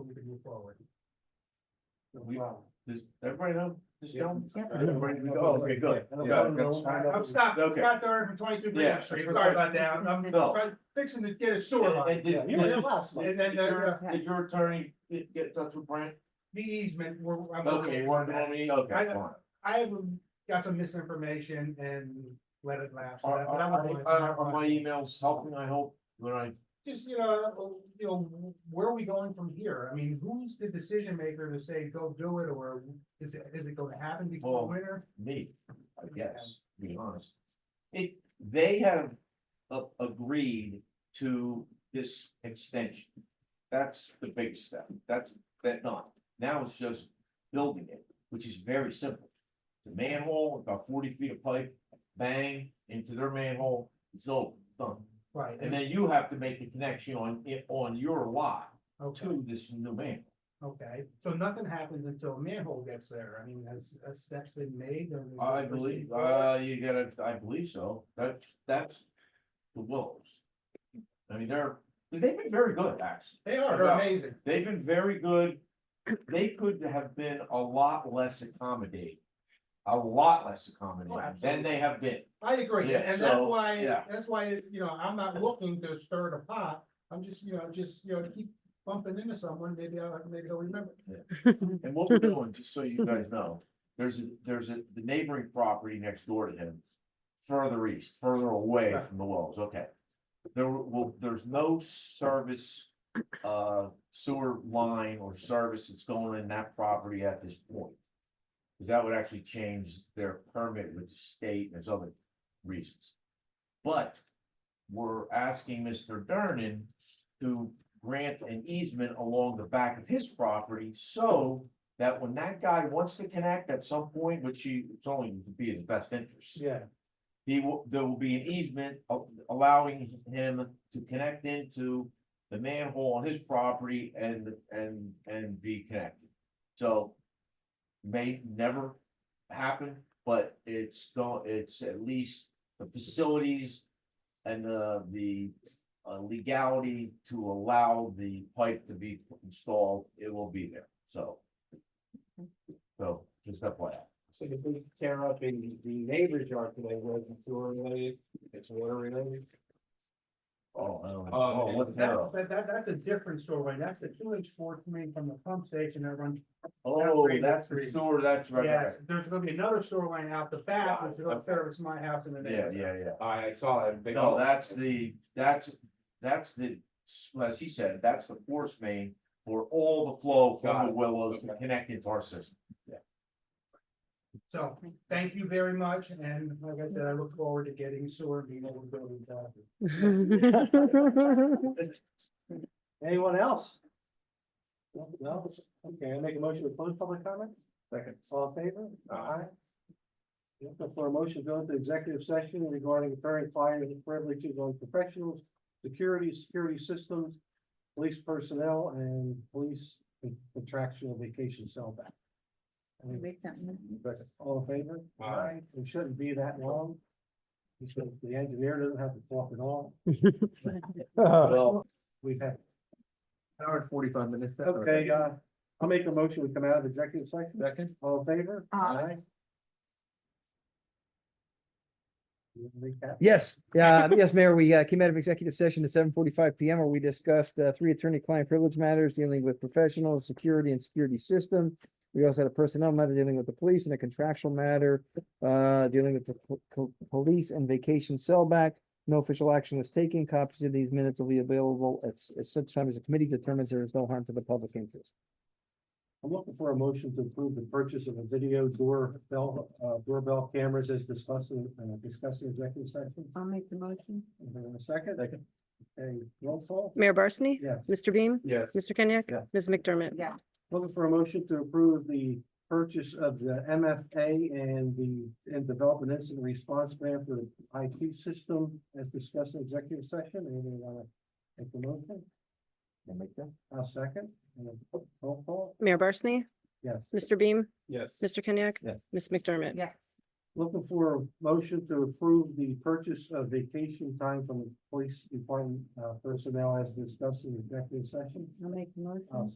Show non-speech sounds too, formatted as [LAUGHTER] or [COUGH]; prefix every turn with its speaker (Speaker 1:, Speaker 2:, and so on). Speaker 1: move forward.
Speaker 2: We- Does everybody know this gentleman?
Speaker 3: Yeah.
Speaker 2: Everybody, we go, Oh, okay, good. Yeah, that's-
Speaker 1: I'm stopped, I'm
Speaker 2: Okay.
Speaker 1: stopped there for twenty-two
Speaker 2: Yeah.
Speaker 1: Green Street, sorry about that, I'm, I'm
Speaker 2: No.
Speaker 1: trying- fixing to get a sewer line.
Speaker 2: And- and-
Speaker 1: You were there last month.
Speaker 2: And
Speaker 1: And then,
Speaker 2: then, uh,
Speaker 1: uh,
Speaker 2: did your attorney get get in touch with Brent?
Speaker 1: the easement, we're. I'm-
Speaker 2: Okay, one more meeting, okay.
Speaker 1: I-
Speaker 2: fine.
Speaker 1: I have got some misinformation and let it lapse.
Speaker 2: Are,
Speaker 1: but
Speaker 2: are,
Speaker 1: I'm
Speaker 2: are-
Speaker 1: going-
Speaker 2: are- are my emails helping, I hope, when I,
Speaker 1: Just, you know, you know, where are we going from here? I mean, who's the decision maker to say, go do it, or is it, is it gonna happen
Speaker 2: Well,
Speaker 1: before winter?
Speaker 2: me, I guess, to be honest. It, they have a- agreed to this extension. That's the big step, that's, that done. Now it's just building it, which is very simple. The manhole, about forty feet of pipe, bang, into their manhole, it's over, done.
Speaker 1: Right,
Speaker 2: And then you have to make the connection on it, on your lot
Speaker 1: okay,
Speaker 2: to this new manhole.
Speaker 1: okay, so nothing happens until a manhole gets there, I mean, has, has steps been made? or-
Speaker 2: I believe, uh, you gotta, I believe so, that, that's the Willows. I mean, they're, they've been very good, actually,
Speaker 1: They are, they're
Speaker 2: Yeah.
Speaker 1: amazing,
Speaker 2: they've been very good, they could have been a lot less accommodating. A lot less accommodating than they have been,
Speaker 1: I agree,
Speaker 2: Yeah,
Speaker 1: and that's
Speaker 2: so,
Speaker 1: why,
Speaker 2: yeah.
Speaker 1: that's why, you know, I'm not looking to stir the pot, I'm just, you know, just, you know, keep bumping into someone, maybe I'll, maybe they'll remember.
Speaker 2: and what we're doing, just so you guys know, there's a, there's a, the neighboring property next door to him. Further east, further away
Speaker 1: Right.
Speaker 2: from the Willows, okay. There will, there's no service uh sewer line or service that's going in that property at this point. Cause that would actually change their permit with the state and there's other reasons. But we're asking Mr. Dernan to grant an easement along the back of his property so that when that guy wants to connect at some point, which he, it's only to be his best interest
Speaker 1: Yeah.
Speaker 2: he will, there will be an easement a- allowing him to connect into the manhole on his property and, and, and be connected. So may never happen, but it's go, it's at least the facilities and the, the uh, legality to allow the pipe to be installed, it will be there, so. So, just that way.
Speaker 4: So if we tear up in the neighbor's yard today, where it's sewer related, it's water related.
Speaker 2: Oh, I don't know.
Speaker 4: Oh,
Speaker 2: Oh, what the
Speaker 1: That's,
Speaker 2: hell?
Speaker 1: that, that, that's a different story, that's the two inch four main from the pump station that runs.
Speaker 2: Oh,
Speaker 1: That's
Speaker 2: that's
Speaker 1: pretty-
Speaker 2: the sewer, that's right, right.
Speaker 1: Yes, there's gonna be another sewer line out the back, which is gonna service my house in the
Speaker 2: right. Yeah,
Speaker 1: neighborhood.
Speaker 2: yeah,
Speaker 4: I, I saw that.
Speaker 2: yeah.
Speaker 4: big
Speaker 2: No,
Speaker 4: hole.
Speaker 2: that's the, that's, that's the, as he said, that's the force main for all the flow
Speaker 4: Got
Speaker 2: from the
Speaker 4: it.
Speaker 2: willows to
Speaker 4: Okay.
Speaker 2: connect into our system.
Speaker 1: So, thank you very much, and like I said, I look forward to getting sewer and being able to build it. back.
Speaker 3: Anyone else? No, No, okay, I make a motion to close public comments? Second. All in favor?
Speaker 4: Aye.
Speaker 3: The floor motion go into executive session regarding current client privileges on professionals, security, security systems, police personnel and police contractual vacation sellback. Any-
Speaker 5: Make that move.
Speaker 3: All in favor?
Speaker 4: Aye.
Speaker 3: It shouldn't be that long. You should- The engineer doesn't have to talk at all.
Speaker 2: Well,
Speaker 3: We've had
Speaker 4: Hour and forty-five minutes.
Speaker 3: Okay, uh, I'll make a motion, we come out of executive session,
Speaker 4: Second.
Speaker 3: all in favor?
Speaker 5: Aye.
Speaker 3: You wanna make that?
Speaker 6: [LAUGHS] Yes, yeah, yes, Mayor, we uh, came out of executive session at seven forty-five PM where we discussed uh, three attorney-client privilege matters dealing with professional security and security system. We also had a personnel matter dealing with the police and a contractual matter uh, dealing with the po- po- police and vacation sellback. No official action was taken. Copies of these minutes will be available at s- at such time as the committee determines there is no harm to the public interest.
Speaker 3: I'm looking for a motion to approve the purchase of a video doorbell, uh, doorbell cameras as discussing, uh, discussing executive session.
Speaker 5: I'll make the motion.
Speaker 3: Is there a Second, okay, roll call,
Speaker 7: Mayor Barsney?
Speaker 3: yes.
Speaker 7: Mr. Beam?
Speaker 4: Yes.
Speaker 7: Mr. Kenyek?
Speaker 3: Yes.
Speaker 7: Ms. McDermott?
Speaker 5: Yes.
Speaker 3: Looking for a motion to approve the purchase of the MFA and the, and develop an incident response plan for the IT system as discussed in executive session. Anyone wanna make the motion?
Speaker 2: Can I make that?
Speaker 3: I'll second. And then Roll call,
Speaker 7: Mayor Barsney?
Speaker 3: yes.
Speaker 7: Mr. Beam?
Speaker 4: Yes.
Speaker 7: Mr. Kenyek?
Speaker 2: Yes.
Speaker 7: Ms. McDermott?
Speaker 5: Yes.
Speaker 3: Looking for a motion to approve the purchase of vacation time from the police department, uh, personnel as discussed in executive session. Uh,
Speaker 5: I'll make the
Speaker 3: I'll
Speaker 5: motion.